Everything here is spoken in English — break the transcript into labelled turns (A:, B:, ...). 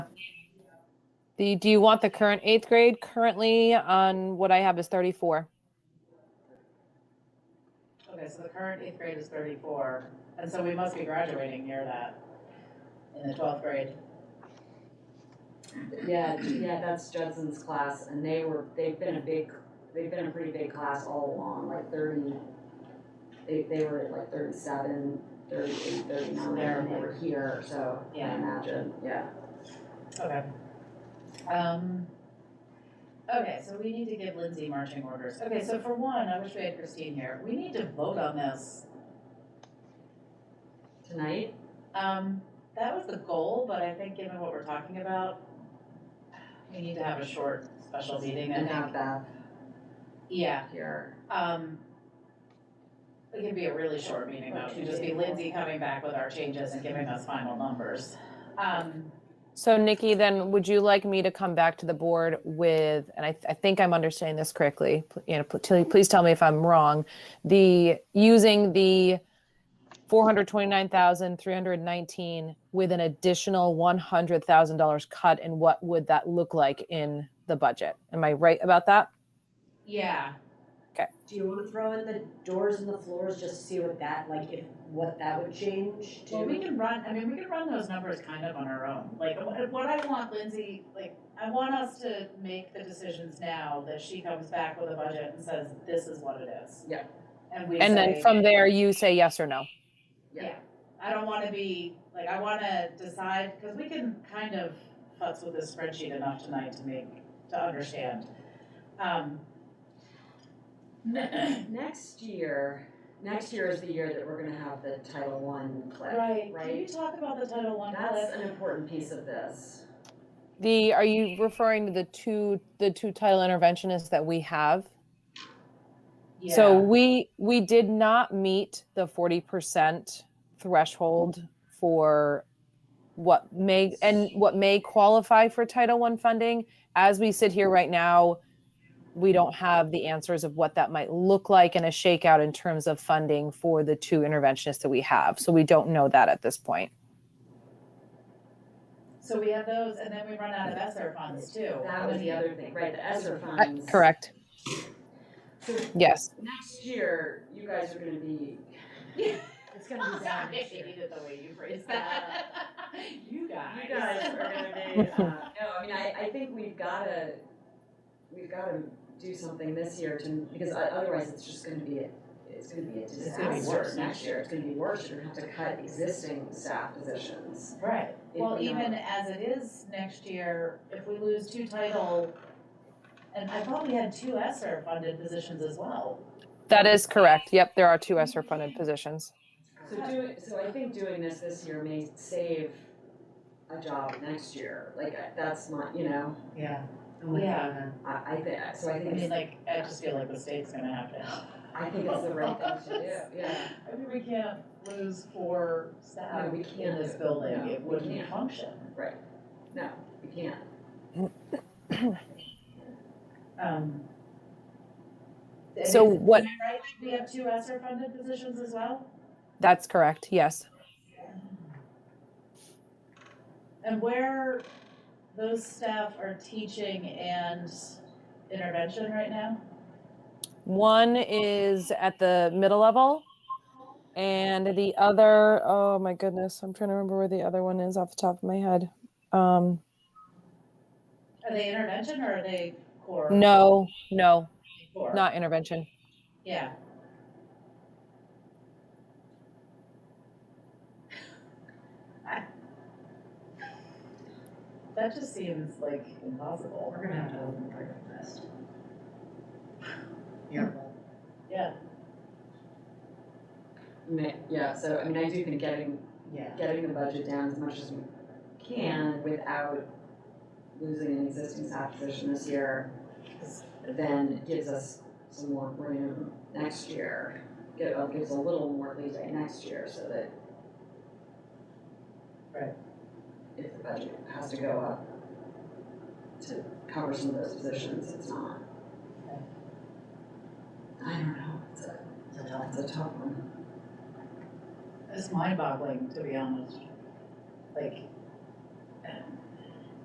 A: The, do you want the current eighth grade? Currently on what I have is 34.
B: Okay, so the current eighth grade is thirty-four, and so we must be graduating near that in the twelfth grade.
C: Yeah, yeah, that's Judson's class, and they were, they've been a big, they've been a pretty big class all along, like thirty, they, they were at like thirty-seven, thirty-eight, thirty-nine, and they were here, so, I
B: Yeah.
C: imagine, yeah.
B: Okay. Um, okay, so we need to give Lindsay marching orders. Okay, so for one, I wish we had Christine here. We need to vote on this.
C: Tonight?
B: Um, that was the goal, but I think given what we're talking about, we need to have a short special meeting, I
C: And
B: think.
C: have Beth
B: Yeah,
C: here.
B: um, it can be a really short meeting though. It could just be Lindsay coming back with our changes and giving us final numbers. Um,
A: So Nikki, then would you like me to come back to the board with, and I, I think I'm understanding this correctly, pl- you know, pl- tell- please tell me if I'm wrong, the, using the 429,319 with an additional $100,000 cut, and what would that look like in the budget? Am I right about that?
B: yeah,
D: Do you wanna throw in the doors and the floors just to see what that, like, if, what that would change to?
B: Well, we can run, I mean, we can run those numbers kind of on our own. Like, what what I want Lindsay, like, I want us to make the decisions now that she comes back with a budget and says, this is what it is.
C: Yeah.
B: And we
A: And then
B: say-
A: from there, you say yes or no.
B: Yeah, I don't wanna be, like, I wanna decide, cause we can kind of futz with this spreadsheet enough tonight to make, to understand. Um,
C: Next year, next year is the year that we're gonna have the Title I clip.
B: right, can you
C: Right.
B: talk about the Title One
C: That's
B: clip?
C: an important piece of this.
A: The, are you referring to the two, the two title interventionists that we have? So
B: Yeah,
A: we, we did not meet the forty percent threshold for what may, and what may qualify for Title I funding. As we sit here right now, we don't have the answers of what that might look like in a shakeout in terms of funding for the two interventionists that we have. So we don't know that at this point.
B: so we have those, and then we run out of ESSER funds too.
C: Oh, That was the other thing, right, the ESSER
A: Uh,
C: funds.
A: Correct,
C: So
A: yes.
C: next year, you guys are gonna be
D: It's gonna be bad next year.
B: hated the way you phrased
C: that.
B: You
C: You guys are gonna be, uh, no, I mean, I, I think we've gotta, we've gotta do something this year to, because o- otherwise it's just gonna be, a- it's gonna be
B: gonna
C: a
B: be
C: disaster
B: worse next
C: next year, it's gonna be worse, you're gonna have to cut existing staff positions.
B: Right,
C: if
B: well,
C: we
B: even
C: don't-
B: as it is next year, if we lose two title, and I thought we had two ESSER funded positions as well.
A: That is correct. Yep, there are two ESER funded positions.
C: So doing, so I think doing this this year may save a job next year, like, I- that's my, you know,
B: Yeah.
D: Oh my God.
B: Yeah.
C: I, I think, so I
B: I
C: think,
B: mean,
C: it's-
B: like, I just feel like the state's gonna have to help.
C: I think it's the right thing to do, yeah.
B: I mean, we can't lose four
C: No,
B: staff
C: we
B: in
C: can't
B: this
C: do-
B: building,
C: no,
B: it
C: we
B: wouldn't
C: can't.
B: function.
C: Right, no, you can't.
B: Um. and
A: So
B: is-
A: what-
B: Am I right, we have two ESSER funded positions as well?
A: That's correct, yes.
B: And where those staff are teaching and intervention right now?
A: One is at the middle level. And the other, oh my goodness, I'm trying to remember where the other one is off the top of my head. Um,
B: Are they intervention or are they core?
A: no, no,
B: Core.
A: not intervention.
B: Yeah. That just seems like impossible.
D: We're gonna have to open the breakfast. fest.
B: Yeah.
C: Ma- Yeah, so I mean, I do think getting,
B: Yeah.
C: getting the budget down as much as we can without losing an existing staff position this year, then gives us some more room next year. Give, uh, gives a little more leeway next year so that.
B: Right.
C: If the budget has to go up to cover some of those positions, it's not. I don't know, it's a, it's a tough one.
B: It's mind boggling, to be honest. Like,